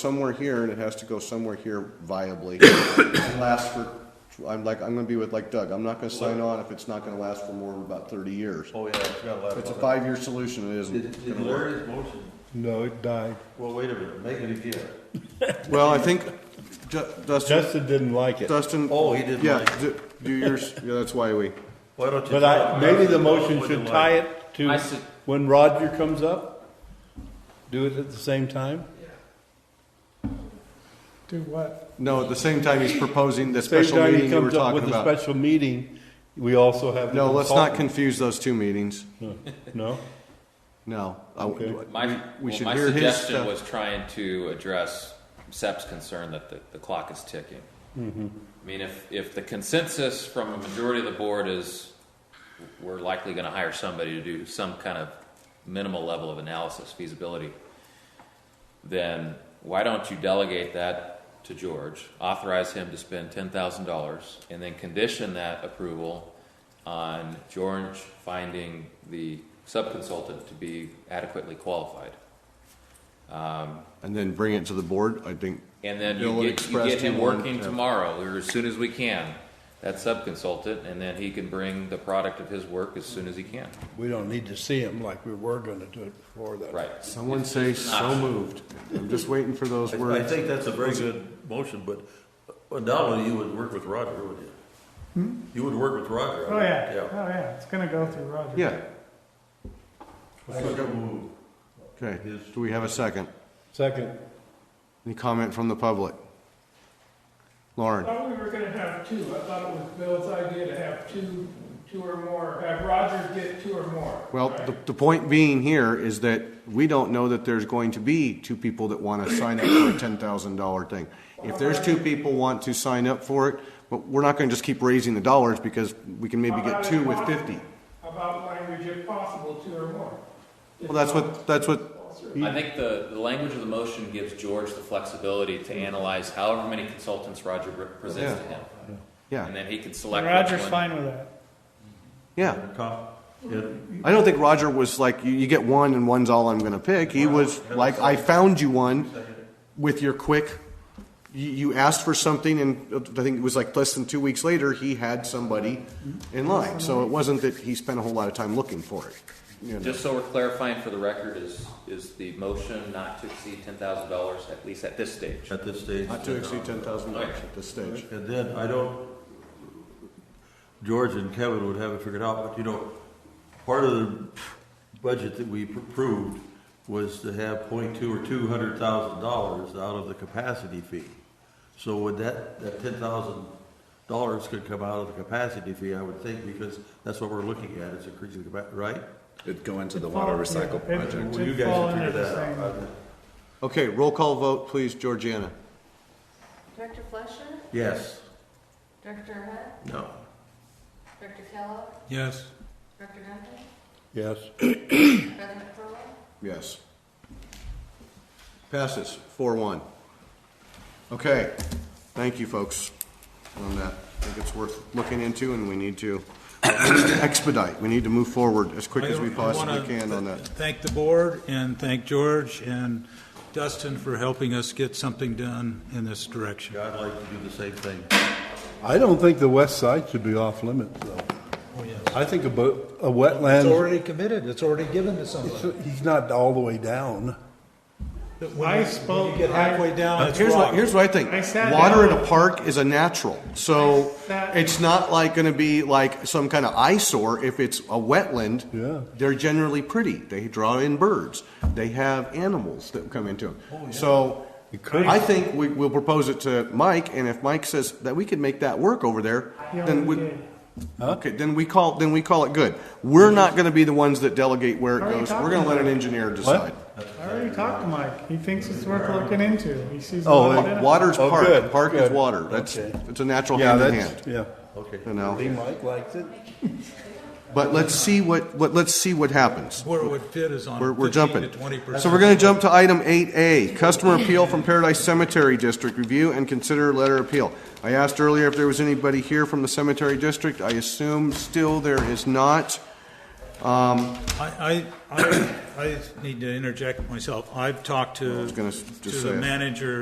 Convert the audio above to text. somewhere here and it has to go somewhere here viably. And last for, I'm like, I'm gonna be with like Doug, I'm not gonna sign on if it's not gonna last for more than about thirty years. Oh, yeah, I forgot about It's a that. five-year solution, it Did, isn't. did Larry's motion, No, it died. well, wait a minute, make it again. Well, I think Ju- Dustin, Justin didn't like it, Dustin. Oh, he didn't Yeah, like it. do do yours, yeah, that's why we, Why don't you? but I, maybe the motion should tie it. it to I said- when Roger comes up. Do it at the same time. Do what? no, at the same time, he's proposing the Same special time he meeting you were comes up with talking a about. special meeting, we also have. the No, let's not consultant. confuse those two meetings, No, no. I- Okay. My, we- We well, should my hear his suggestion stuff. was trying to address Sep's concern that the, the clock is ticking. Mm-hmm. I mean, if, if the consensus from a majority of the board is we're likely going to hire somebody to do some kind of minimal level of analysis feasibility, then why don't you delegate that to George, authorize him to spend ten thousand dollars, and then condition that approval on George finding the subconsultant to be adequately qualified. And then bring it to the board, I think, And then Bill you would get, you express get to him one- working yeah. tomorrow, or as soon as we can, that subconsultant, and then he can bring the product of his work as soon as he can. We don't need to see him like we were gonna do it before that. Right. someone say so moved. I'm just waiting for those I words. think that's a very good motion, but uh, not only you would work with Roger, would you? Hmm? You would work with Roger. I Oh, would- yeah, oh, yeah, it's gonna go through Roger. Yeah, I second okay, do we have a second? second. Any comment from the public? I Lauren, thought we were gonna have two, I thought it was Bill's idea to have two, two or more, have Roger get two or more. well, right? the, the point being here is that we don't know that there's going to be two people that want to sign up for a ten thousand dollar thing. If there's two people want to sign up for it, but we're not gonna just keep raising the dollars because we can maybe get two with fifty. About language if possible, two or more. Well, that's what, that's what, I think the, the language of the motion gives George the flexibility to analyze however many consultants Roger re- presents to him. yeah, And then he can select Roger's which one. fine with that. yeah. It I don't think Roger was like, you, you get one and one's all I'm gonna pick. He was like, I found you one with your quick, you, you asked for something and I think it was like less than two weeks later, he had somebody in line. So it wasn't that he spent a whole lot of time looking for it. you know. Just so we're clarifying for the record, is, is the motion not to exceed ten thousand dollars, at least at this stage? At this stage. Not to exceed ten thousand dollars at this stage. And then, I don't, George and Kevin would have it figured out, but you know, part of the budget that we approved was to have point two or two hundred thousand dollars out of the capacity fee. So would that, that ten thousand dollars could come out of the capacity fee, I would think, because that's what we're looking at, it's increasing the, capa- right? It'd go into the water recycle Yeah, it- project. Well, you it'd guys fall would figure under the that out. same- Okay, roll call vote, please, Georgiana. Director Fleischer, Yes. Director Hunt, No. Director Kellogg, Yes. Director Duncan, Yes. President Crowell. Yes. Passes, four one. Okay, thank you, folks, on that. I think it's worth looking into, and we need to expedite. We need to move forward as quick as we I- I possibly wanna can on th- that. Thank the board and thank George and Dustin for helping us get something done in this direction. Yeah, I'd like to do the same thing. I don't think the west side should be off limits though. Oh, I think a, bo- a It's wetland, already committed, it's already given to somebody. he's not all the way down. I spoke, You get I, halfway down, it's Here's what, rock. here's what I think. I sat Water in down. a park is a natural, so I sat- it's not like gonna be like some kind of eyesore if it's a wetland. Yeah. They're generally pretty. They draw in birds. They have animals that come into them. So You could- I think we, we'll propose it to Mike, and if Mike says that we could make that work over there, he then already we, did. okay, then we call, then we call it good. We're not gonna be the ones that delegate where it Are you goes. We're talking gonna let an about- engineer decide. I already talked to Mike, he thinks it's worth looking into, he sees. a Oh, lot of it- benefit. Water's Oh, park. good, Park is good. water. That's, Okay. it's a natural Yeah, hand in that's, hand, yeah. Okay. you know? Mike likes it. But let's see what, what, let's see what happens. Where it would fit is on We're, we're fifteen to jumping. twenty percent. So we're gonna jump to item eight A, customer appeal from Paradise Cemetery District, review and consider letter appeal. I asked earlier if there was anybody here from the cemetery district, I assume still there is not. I, I, I I need to interject myself. I've talked I to, was gonna s- just to say the it. manager